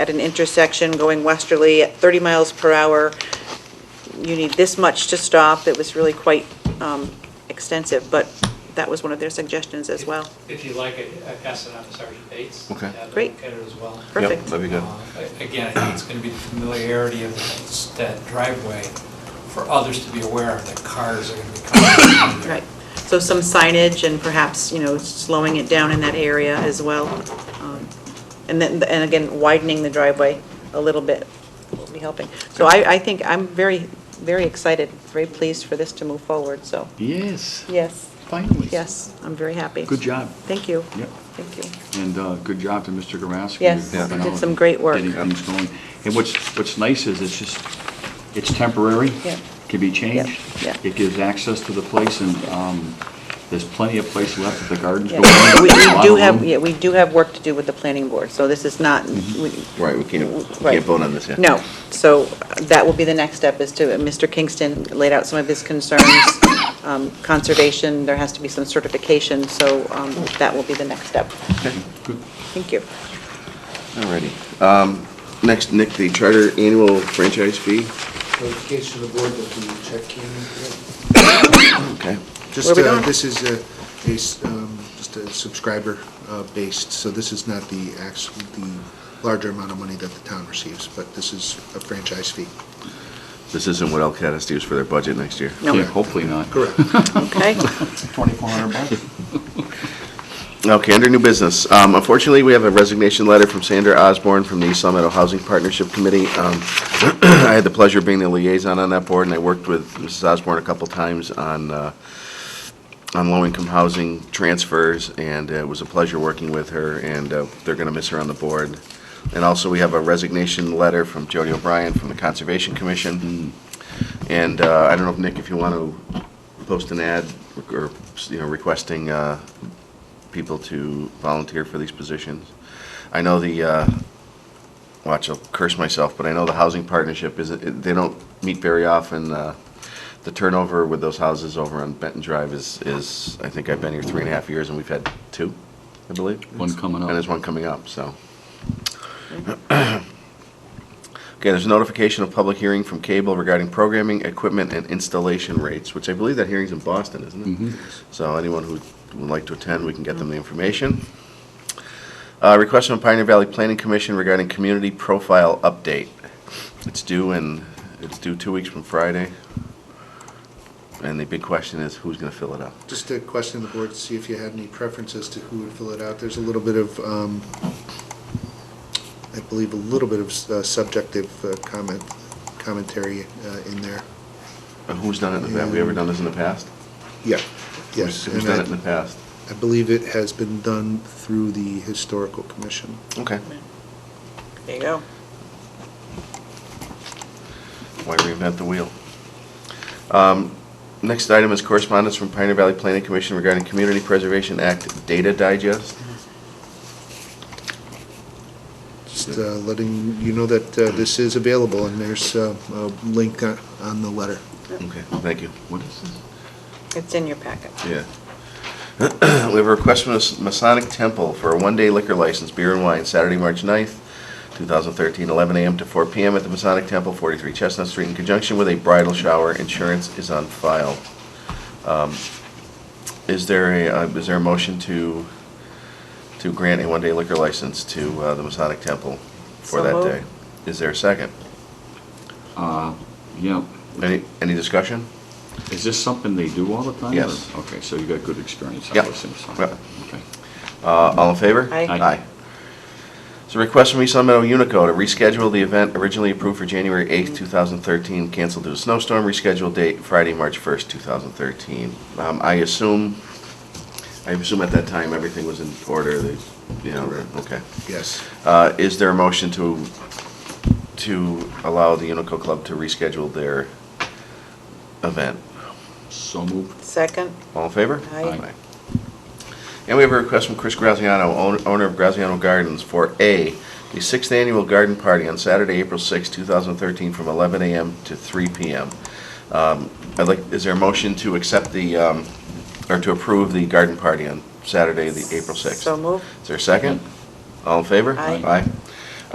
at an intersection going westerly at 30 miles per hour. You need this much to stop. It was really quite um, extensive, but that was one of their suggestions as well. If you like, I I pass it on to Sergeant Bates. Okay. Have him Great. look at it as well. Perfect. Yep, that'd be good. Uh, Again, I think it's going to be the familiarity of that- that driveway for others to be aware of that cars are going to be coming. through there. Right. So some signage and perhaps, you know, slowing it down in that area as well. Um, And then, and again, widening the driveway a little bit will be helping. So I, I think, I'm very, very excited, very pleased for this to move forward, so, Yes, yes, finally. yes, I'm very happy. Good job. Thank you. Yep. Thank you. And uh, good job to Mr. Yes, Garasko. You're he helping did out some great work. Getting things going. And what's, what's nice is it's just, it's temporary. Yeah. Can be changed. yeah. It gives access to the place and um, there's plenty of place left at the gardens. Yeah. going on. We we do A lot of have, room. yeah, we do have work to do with the planning board, so this is not, we, Right, we Right. can't, we Mm-hmm. can't vote on this yet. No, so uh, that will be the next step, is to, Mr. Kingston laid out some of his concerns, um, conservation, there has to be some certification, so um, that will be the next step. Okay, good. Thank you. Alrighty. Um, Next, Nick, the charter annual franchise fee. Notification to the board that the check came in. Okay. Where Just, we uh, going? this is a, a s- um, just a subscriber-based, so this is not the actual, the larger amount of money that the town receives, but this is a franchise fee. This isn't what Elcatus used for their budget next year. No. Yeah, Hopefully not. Correct. Okay, Okay, under new business, um, unfortunately, we have a resignation letter from Sandra Osborne from the East Long Meadow Housing Partnership Committee. Um, I had the pleasure of being the liaison on that board, and I worked with Mrs. Osborne a couple times on, uh, on low-income housing transfers, and it was a pleasure working with her, and uh, they're going to miss her on the board. And also, we have a resignation letter from Jody O'Brien from the Conservation Commission. And uh, I don't know, if Nick, if you want to post an ad or, you know, requesting uh, people to volunteer for these positions. I know the, uh, watch, I'll curse myself, but I know the housing partnership isn't, they don't meet very often. uh, The turnover with those houses over on Benton Drive is, is, I think I've been here three and a half years and we've had two, I believe. One coming up. And there's one coming up, so. Okay, there's notification of public hearing from cable regarding programming, equipment, and installation rates, which I believe that hearing's in Boston, isn't it? Mm-hmm. So anyone who would like to attend, we can get them the information. Uh, Request from Pioneer Valley Planning Commission regarding community profile update. It's due in, it's due two weeks from Friday. And the big question is, who's going to fill it out? Just a question to the board to see if you had any preferences to who would fill it out. There's a little bit of, um, I believe, a little bit of uh, subjective uh, comment, commentary uh, in there. Uh, Who's done it in the past? Have we ever done this in the past? Yeah, Who's- yes. Who's and done I- it in the past? I believe it has been done through the Historical Commission. Okay. there you go. Why reinvent the wheel? Um, Next item is correspondence from Pioneer Valley Planning Commission regarding Community Preservation Act Data Digest. Just uh, letting you know that uh, this is available, and there's uh, a link on on the letter. Okay, thank you. What is this? It's in your packet. Yeah. We have a request from the Masonic Temple for a one-day liquor license, beer and wine, Saturday, March 9th, 2013, 11 a.m. to 4 p.m. at the Masonic Temple, 43 Chestnut Street, in conjunction with a bridal shower. Insurance is on file. Um, Is there a, uh, is there a motion to, to grant a one-day liquor license to uh, the Masonic Temple for So that moved. day? Is there a second? Uh, Yeah. Any, any discussion? Is this something they do all the time? or- Yes. Okay, so you got good experience. on Yep. this and stuff. Yep. Okay. Uh, All in favor? Aye. Aye. It's a request from East Long Meadow Unico to reschedule the event originally approved for January 8th, 2013, canceled due to snowstorm, rescheduled date Friday, March 1st, 2013. Um, I assume, I assume at that time, everything was in order, they, you know, okay. Yes. Uh, Is there a motion to, to allow the Unico Club to reschedule their event? So moved. Second, All in favor? Aye. Aye. And we have a request from Chris Graziano, own- owner of Graziano Gardens, for A, the sixth annual garden party on Saturday, April 6, 2013, from 11 a.m. to 3 p.m. Um, I'd like, is there a motion to accept the, um, or to approve the garden party on Saturday, the April 6th? so moved. Is there a second? All in favor? Aye. Aye.